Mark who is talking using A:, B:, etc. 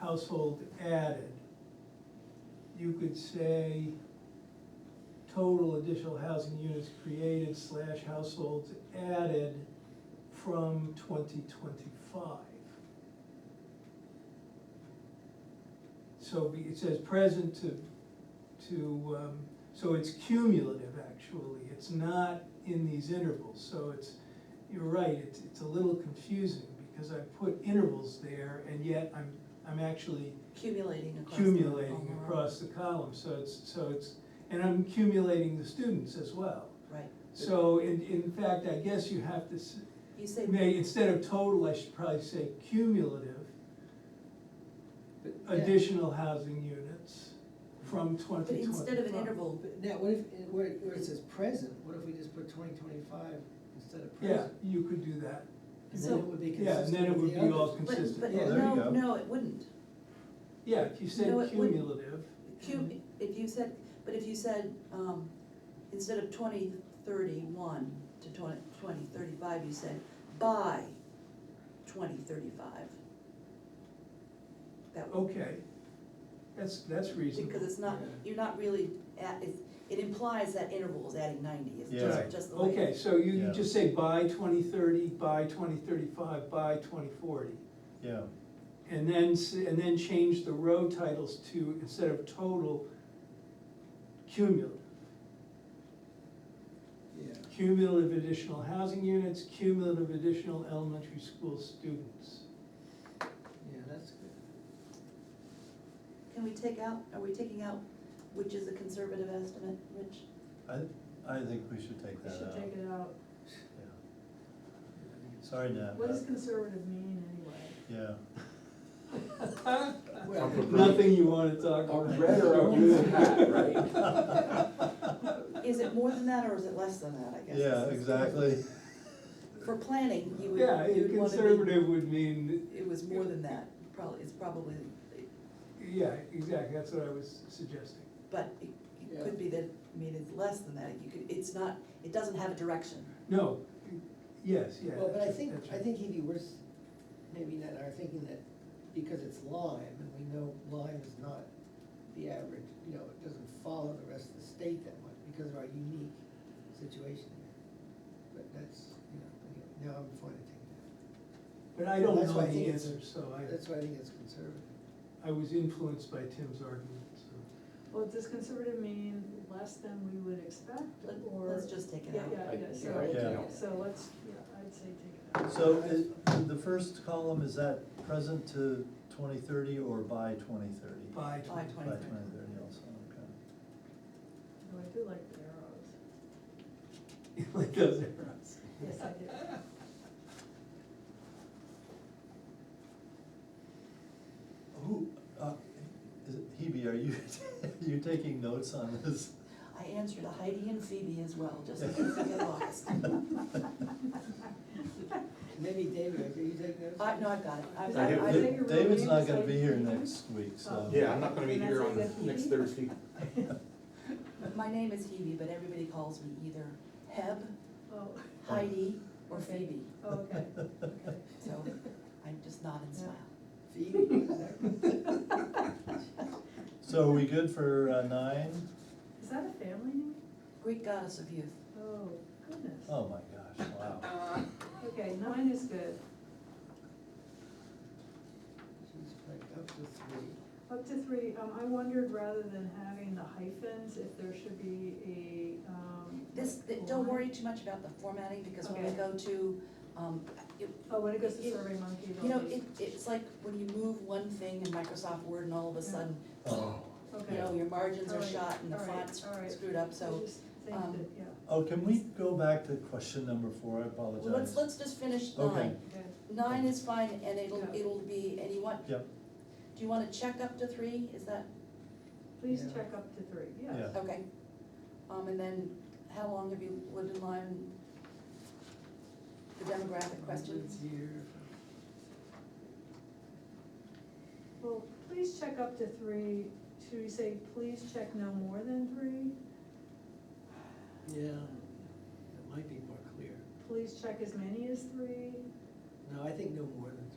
A: household added, you could say total additional housing units created slash households added from twenty twenty-five. So be- it says present to, to, um, so it's cumulative actually, it's not in these intervals, so it's, you're right, it's, it's a little confusing because I put intervals there and yet I'm, I'm actually
B: accumulating across. the-
A: accumulating
B: all
A: across the column, so it's, so it's, and I'm accumulating the students as well.
B: Right,
A: So in, in fact, I guess you have to, s-
B: you say,
A: may, instead of total, I should probably say cumulative
B: Yeah.
A: additional housing units from
B: but
A: twenty twenty-five.
B: instead of an interval,
C: But Now, what if, where, where it says present, what if we just put twenty twenty-five instead of
A: Yeah,
C: present?
A: you could do that,
C: And then
B: So-
C: it would be
A: yeah, and then
C: consistent
A: it
C: with
A: would
C: the
A: be all
C: others.
B: but,
A: consistent.
B: but
C: Yeah,
D: there you
B: no,
D: go.
B: no, it wouldn't.
A: Yeah, if you said
B: No, it wouldn't.
A: cumulative, Mm-hmm.
B: Cum, if you said, but if you said, um, instead of twenty thirty-one to twenty, twenty thirty-five, you said by twenty thirty-five. That would,
A: okay, that's, that's Oh, reasonable.
B: because it's not,
C: Yeah.
B: you're not really at, it, it implies that interval is adding ninety, it's
D: Yeah.
B: just,
A: Right.
B: just the way. it
A: Okay,
B: is.
A: so you, you
D: Yeah.
A: just say by twenty thirty, by twenty thirty-five, by twenty forty.
D: Yeah,
A: And then, s- and then change the row titles to, instead of total, cumulative.
C: Yeah.
A: Cumulative additional housing units, cumulative additional elementary school students.
C: Yeah, that's good.
B: Can we take out, are we taking out, which is a conservative estimate, Rich?
D: I, I think we should take
E: We
D: that
E: should
D: out.
E: take it out.
D: Yeah. Sorry, Nat.
E: What
D: but-
E: does conservative mean anyway?
D: Yeah,
C: Well,
A: Nothing you wanna talk
F: A
A: about.
F: red or a blue hat, right?
A: Uh,
B: Is it more than that or is it less than that, I guess?
D: yeah, exactly.
B: For planning, you would,
A: Yeah, a
B: you'd wanna be.
A: conservative would mean,
B: It was more than that, probably, it's probably,
A: yeah, exactly, that's what I was suggesting.
B: but it, it could be that, I mean, it's less than that, you could, it's not, it doesn't have a direction.
A: No, yes, yeah.
C: Well, but I
A: that's-
C: think,
A: that's
C: I
A: right.
C: think he'd be worth, maybe not, are thinking that because it's Lyme, and we know Lyme is not the average, you know, it doesn't follow the rest of the state that much because of our unique situation here. But that's, you know, anyway, now I'm fine to
A: But I don't
C: That's why
A: know
C: I think
A: the
C: it's-
A: answer, so
C: take that. That's
A: I,
C: why I think it's conservative.
A: I was influenced by Tim's argument, so.
E: Well, does conservative mean less than we would expect
B: Let-
E: or?
B: let's just take it out.
E: Yeah, yeah, yeah, so,
F: Like,
D: yeah.
E: yeah, so let's, yeah, I'd say take it out.
D: So is, the first column, is that present to twenty thirty or by twenty thirty?
A: By
B: By
D: By
A: 20.
D: twenty
B: 2030.
D: thirty also, okay.
E: Though I do like the arrows.
A: Like those arrows.
E: Yes, I do.
D: Who, uh, is it, Hebe, are you, you taking notes on this?
B: I answered Heidi and Phoebe as well, just in case I get lost.
C: Maybe David, are you taking notes?
B: I, Uh, no, I've got it, I've,
F: I
B: I,
F: have
B: I,
E: think you're
D: David's
E: really
D: not gonna be here
E: excited.
D: next week, so.
E: Oh.
F: Yeah, I'm not gonna be
E: And
F: here
E: that's
F: on
E: like a
F: next
E: PE?
F: Thursday.
B: my name is Hebe, but everybody calls me either Heb,
E: Oh,
B: Heidi, or Phoebe,
E: okay, okay.
B: so I just nod and smile.
C: Phoebe, was that?
D: So are we good for uh, nine?
E: Is that a family name?
B: Greek goddess of youth.
E: Oh, goodness.
D: Oh my gosh, wow.
E: Okay, nine is good.
C: She's like "Oh, up to three.
E: Up to three, um, I wondered rather than having the hyphens, if there should be a, um.
B: This, th-
E: like
B: don't
E: line.
B: worry too much about the formatting, because when we
E: Okay.
B: go to, um, it-
E: Oh, when it goes to
B: You-
E: Survey Monkey,
B: you know,
E: they'll be-
B: it, it's like when you move one thing in Microsoft Word and all of a
E: Yeah.
B: sudden,
D: Oh.
B: you
E: okay.
B: know, your margins are
E: Alright,
B: shot and the
E: alright,
B: font's
E: alright.
B: screwed up,
E: I
B: so.
E: just think
B: um,
E: that, yeah,
D: Oh, can we go back to question number four? I
B: well,
D: apologize.
B: Let's, let's just finish
D: Okay.
B: nine.
E: okay.
B: Nine is fine, and it'll,
E: Yeah.
B: it'll be, and you want, do
D: Yep,
B: you wanna check up to three, is that,
E: Please
C: Yeah.
E: check up to three, yes.
D: Yeah.
B: okay? Um, and then, how long have you lived in Lyme? The demographic questions,
C: Here.
E: Well, please check up to three, should we say, please check no more than three?
C: Yeah, it might be more clear.
E: Please check as many as three?
C: No, I think no more than